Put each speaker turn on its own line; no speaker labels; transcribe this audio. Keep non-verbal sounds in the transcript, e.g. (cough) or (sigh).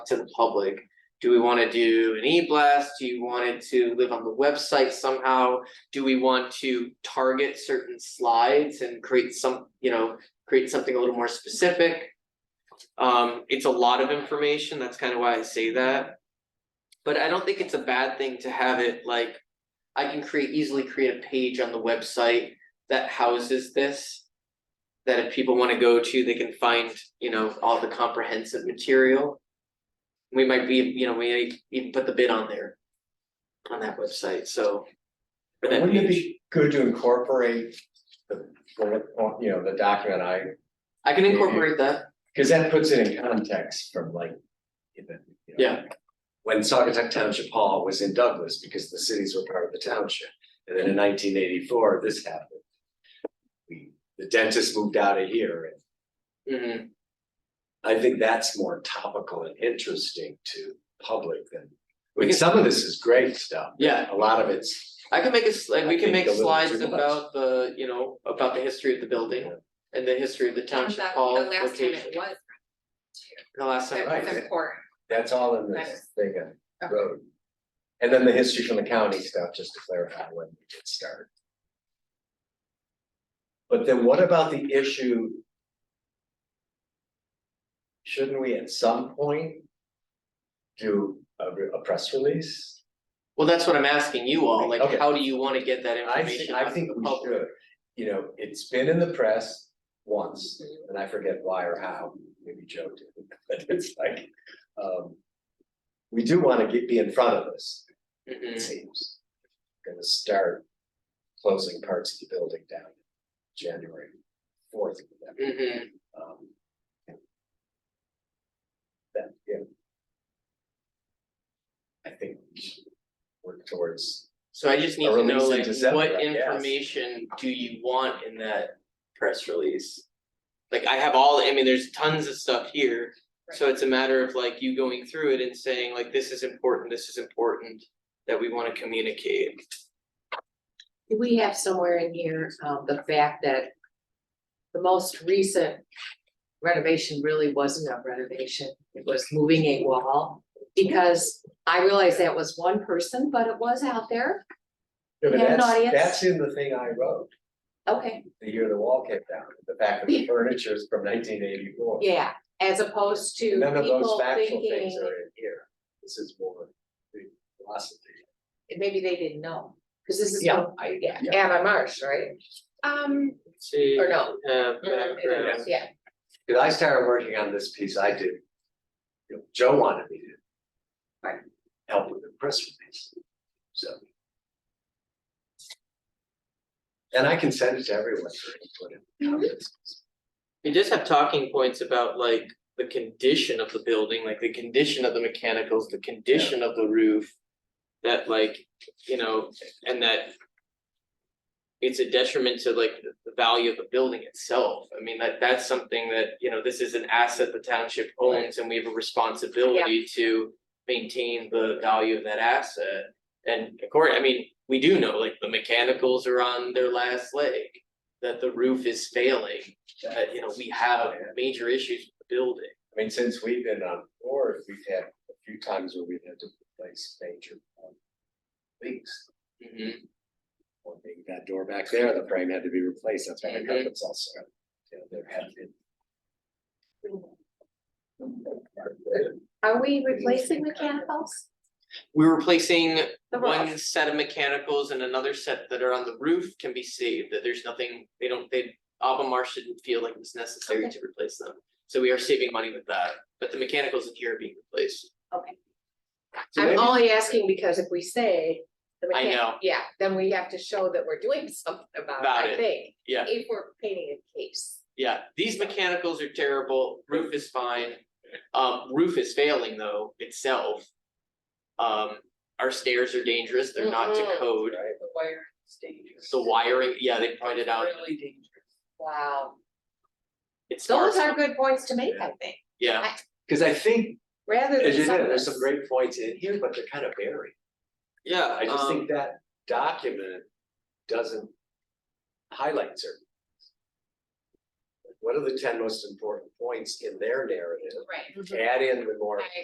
to the public. Do we wanna do an e-blast? Do you want it to live on the website somehow? Do we want to target certain slides and create some, you know, create something a little more specific? Um, it's a lot of information, that's kind of why I say that. But I don't think it's a bad thing to have it like, I can create, easily create a page on the website that houses this. That if people wanna go to, they can find, you know, all the comprehensive material. We might be, you know, we might even put the bid on there. On that website, so. for that
Wouldn't it
page.
be good to incorporate the, bullet point, you know, the document I,
I can
Yeah, yeah.
incorporate that,
because that puts it in context from like. you know, you know,
Yeah.
When Saugatuck Township Hall was in Douglas, because the cities were part of the township, and then in nineteen eighty-four, this happened. We, the dentist moved out of here, and
Mhm.
I think that's more topical and interesting to public than. I
We
mean,
can-
some of this is great stuff,
yeah,
a lot of it's,
I can make a, s- like, we
I
can
think
make
a little
slides
too much.
about the, you know, about the history of the building. And the history of the
Comes
township
back
hall
the last time
location,
it was,
the last time.
Right.
it's important.
that's all in this
Nice.
thing, uh,
Okay.
road. And then the history from the county stuff, just to clarify when we did start. But then what about the issue? Shouldn't we at some point? Do a re- a press release?
Well, that's what I'm asking you all, like,
Okay.
how do you wanna get that
I think,
information
I
out to
think
the
we
public?
should, you know, it's been in the press once,
Mm-hmm.
and I forget why or how, maybe Joe did, (laughs) but it's like, um. We do wanna get, be in front of this,
Hmm.
it
Mhm.
seems. Gonna start closing parts of the building down January fourth. um,
Mhm.
That, yeah. I think work towards,
So I just need
Or
to
release
know,
in
like,
December, I
what
guess.
information do you want in that press release? Like, I have all, I mean, there's tons of stuff here, so it's a matter of like you going through it and saying like, this is important, this is important. That we wanna communicate.
Do we have somewhere in here, um, the fact that the most recent renovation really wasn't a renovation, it was moving a wall? Because I realize that was one person, but it was out there,
no, but
We have an
that's,
audience?
that's in the thing I wrote,
okay,
the year the wall came down, the fact that
(laughs)
the furniture is from nineteen eighty-four.
yeah, as opposed to
None of those
people
factual things are
thinking,
in here, this is more the philosophy.
maybe they didn't know. Cause this is,
Yeah,
from- yeah,
yeah.
Anna Marsh, right?
Um,
See.
Or no.
Uh,
Mm, it
background.
is, Yeah,
Cause I started working on this piece, I did, you know, Joe wanted me to.
Right.
Help with the press release, so. And I can send it to everyone for input and comments.
We just have talking points about like the condition of the building, like the condition of the mechanicals, the condition of the roof. That like, you know, and that. It's a detriment to like the- the value of the building itself. I mean, that that's something that, you know, this is an asset the township owns and we have a responsibility to. Maintain the value of that asset. And according, I mean, we do know like the mechanicals are on their last leg. That the roof is failing, that, you know, we have major issues with the building.
I mean, since we've been on board, we've had a few times where we've had to replace major um, leaks.
Mhm.
Or maybe that door back there, the frame had to be replaced, that's why the carpet's also, you know, there have been.
are we replacing mechanicals?
We're replacing
The
one
roof,
set of mechanicals and another set that are on the roof can be saved, that there's nothing, they don't, they, Albemarle shouldn't feel like it's necessary
Okay.
to replace them. So we are saving money with that, but the mechanicals in here are being replaced.
okay.
So
I'm
maybe-
only asking because if we say the
I
mechanic,
know.
yeah, then we have to show that we're doing (laughs) something about it,
About
I
it,
think.
yeah.
If we're painting a case.
Yeah, these mechanicals are terrible, roof is fine, um, roof is failing though itself. Um, our stairs are dangerous, they're not to
Mhm.
code,
Right.
the wire dangerous.
the wiring, yeah, they pointed out,
Really dangerous.
Wow,
it's.
those are good points to make, I think,
Yeah.
Cause I think,
rather than
as you
some
know,
of
there's some
this-
great points in here, but they're kind of buried.
Yeah,
I just
um,
think that document doesn't highlight certain. things. What are the ten most important points in their narrative?
Right.
Add in the more
I